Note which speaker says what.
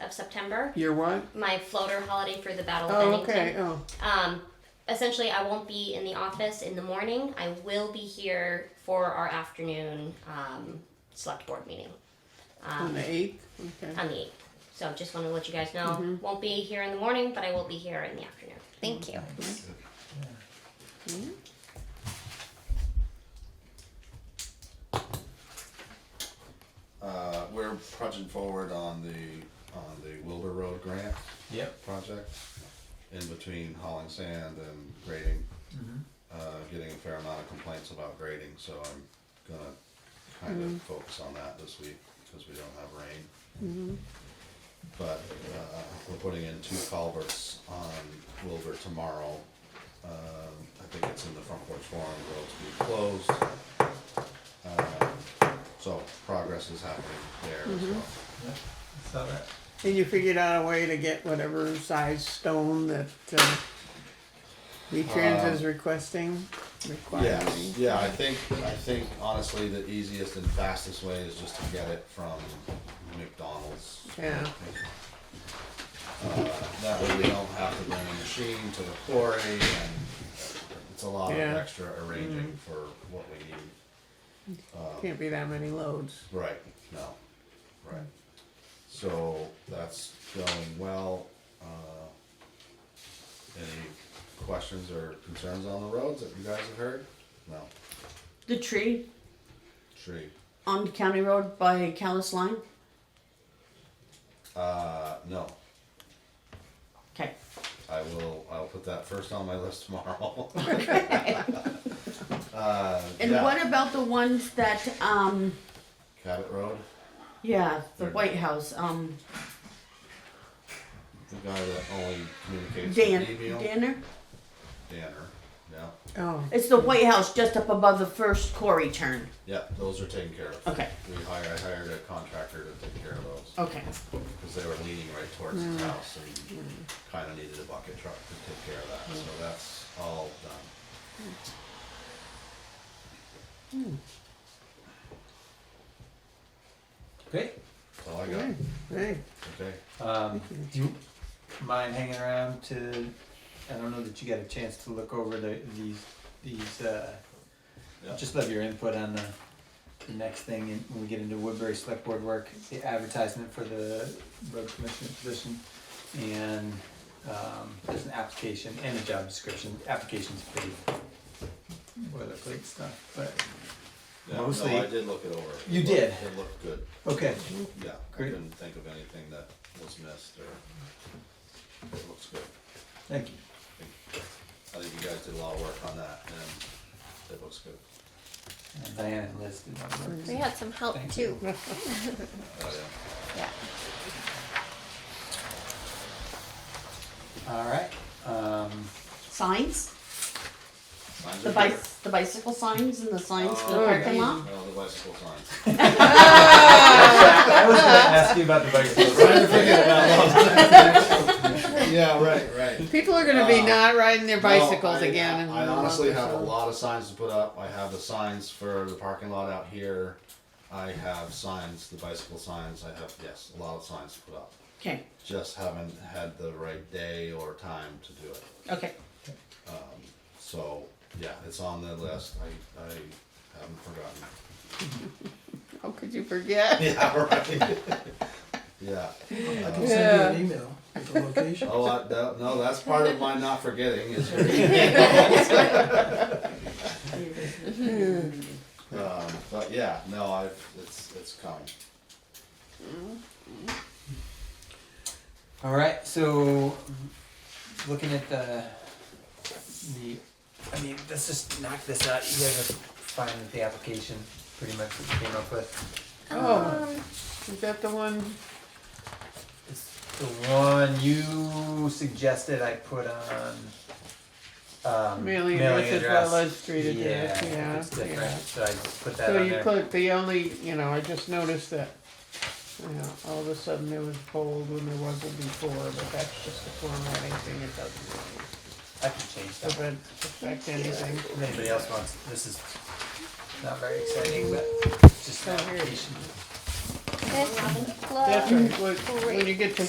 Speaker 1: of September.
Speaker 2: You're what?
Speaker 1: My floater holiday for the Battle of
Speaker 2: Oh,
Speaker 1: Bennington.
Speaker 2: okay. Oh,
Speaker 1: Um, essentially, I won't be in the office in the morning. I will be here for our afternoon um, select board meeting
Speaker 2: Oh, on
Speaker 1: um,
Speaker 2: the eighth. Okay.
Speaker 1: on the 8th. So just want to let you guys know,
Speaker 2: Mm-hmm.
Speaker 1: won't be here in the morning, but I will be here in the afternoon.
Speaker 3: Thank you.
Speaker 4: Uh, we're punching forward on the, on the Wilbur Road grant
Speaker 5: Yep.
Speaker 4: project, in between hauling sand and grading. Uh, getting a fair amount of complaints about grading, so I'm gonna kind of focus on that this week, because we don't have rain. But, uh, we're putting in two culverts on Wilbur tomorrow. Uh, I think it's in the front porch forum, roads be closed. Um, So progress is happening there as well.
Speaker 5: Saw that.
Speaker 2: And you figured out a way to get whatever size stone that uh, V-Trans
Speaker 4: Um,
Speaker 2: is requesting, requiring.
Speaker 4: Yes, yeah, I think, I think honestly, the easiest and fastest way is just to get it from McDonald's.
Speaker 2: Yeah.
Speaker 4: Uh, That way we don't have to bring a machine to the quarry and it's a lot of
Speaker 2: Yeah.
Speaker 4: extra arranging for what we need.
Speaker 2: Can't be that many loads.
Speaker 4: Right, no, right. So that's going well. Uh, Any questions or concerns on the roads that you guys have heard? No,
Speaker 6: The tree
Speaker 4: tree.
Speaker 6: on County Road by Callis Line.
Speaker 4: Uh, no,
Speaker 6: Okay.
Speaker 4: I will, I'll put that first on my list tomorrow. Uh,
Speaker 6: And
Speaker 4: yeah,
Speaker 6: what about the ones that um
Speaker 4: Cabot Road,
Speaker 6: yeah, the
Speaker 4: They're-
Speaker 6: White House, um
Speaker 4: the guy that only communicates
Speaker 6: Dan
Speaker 4: with email.
Speaker 6: Danner?
Speaker 4: Danner, yeah,
Speaker 2: Oh,
Speaker 6: It's the White House just up above the first quarry turn.
Speaker 4: yeah, those are taken care of.
Speaker 6: Okay.
Speaker 4: We hired, I hired a contractor to take care of those.
Speaker 6: Okay.
Speaker 4: because they were leaning right towards
Speaker 5: Mm.
Speaker 4: his house and kind of needed a bucket truck to take care of that. So that's all done.
Speaker 5: Great.
Speaker 4: That's all I got.
Speaker 2: hey, hey.
Speaker 4: Okay.
Speaker 5: Um, do you mind hanging around to? I don't know that you got a chance to look over the these these. Uh,
Speaker 4: Yeah.
Speaker 5: Just love your input on the, the next thing in, when we get into Woodbury Select Board work, the advertisement for the road commissioner position, and um, there's an application and a job description. Application's pretty boilerplate stuff, but
Speaker 4: Yeah,
Speaker 5: Mostly-
Speaker 4: No, I did look it over.
Speaker 5: You
Speaker 4: It
Speaker 5: did?
Speaker 4: looked- It looked good.
Speaker 5: okay.
Speaker 4: Yeah.
Speaker 5: Great.
Speaker 4: I couldn't think of anything that was missed or it looks good.
Speaker 5: Thank you.
Speaker 4: I think you guys did a lot of work on that and it looks good.
Speaker 5: And Diana and Liz did that work.
Speaker 3: We had some help
Speaker 5: Thank
Speaker 3: too.
Speaker 5: you.
Speaker 4: Oh, yeah.
Speaker 3: Yeah.
Speaker 5: All right. Um,
Speaker 6: Signs?
Speaker 4: Signs
Speaker 6: The
Speaker 4: are
Speaker 6: bic-
Speaker 4: good.
Speaker 6: the bicycle signs and the signs for the
Speaker 4: Oh,
Speaker 6: parking lot?
Speaker 4: No, the bicycle signs.
Speaker 5: I was going to ask you about the bicycle.
Speaker 4: Yeah, right, right.
Speaker 2: People are going to be
Speaker 4: Uh,
Speaker 2: not riding their bicycles
Speaker 4: No, I-
Speaker 2: again. in
Speaker 4: I,
Speaker 2: the
Speaker 4: honestly
Speaker 2: month or
Speaker 4: have a
Speaker 2: so.
Speaker 4: lot of signs to put up. I have the signs for the parking lot out here. I have signs, the bicycle signs. I have yes, a lot of signs to put up.
Speaker 6: Okay.
Speaker 4: Just haven't had the right day or time to do it.
Speaker 6: Okay.
Speaker 4: So yeah, it's on the list. I, I haven't forgotten.
Speaker 2: How could you forget?
Speaker 4: Yeah, right. yeah.
Speaker 7: I
Speaker 4: Uh,
Speaker 7: can send you an email with the location.
Speaker 4: oh, I, no, no, that's part of my not forgetting is your Um, but yeah, no, I it's it's coming.
Speaker 5: All right. So, looking at the the, I mean, let's just knock this out. You guys are fine with the application, pretty much what you came up with.
Speaker 2: Oh, is that the one?
Speaker 5: It's the one you suggested I put on. Um,
Speaker 2: Mailing address as well as street address, yeah,
Speaker 5: It's different.
Speaker 2: yeah.
Speaker 5: So I just put that
Speaker 2: So
Speaker 5: on
Speaker 2: you
Speaker 5: there.
Speaker 2: put the only, you know, I just noticed that, you know, all of a sudden it was bold when there wasn't before, but that's just the formatting thing. It doesn't really
Speaker 5: I can change that.
Speaker 2: doesn't affect anything.
Speaker 5: If anybody else wants, this is not very exciting, but just an application.
Speaker 3: This
Speaker 2: That's right. When- When
Speaker 3: Great.
Speaker 2: you get to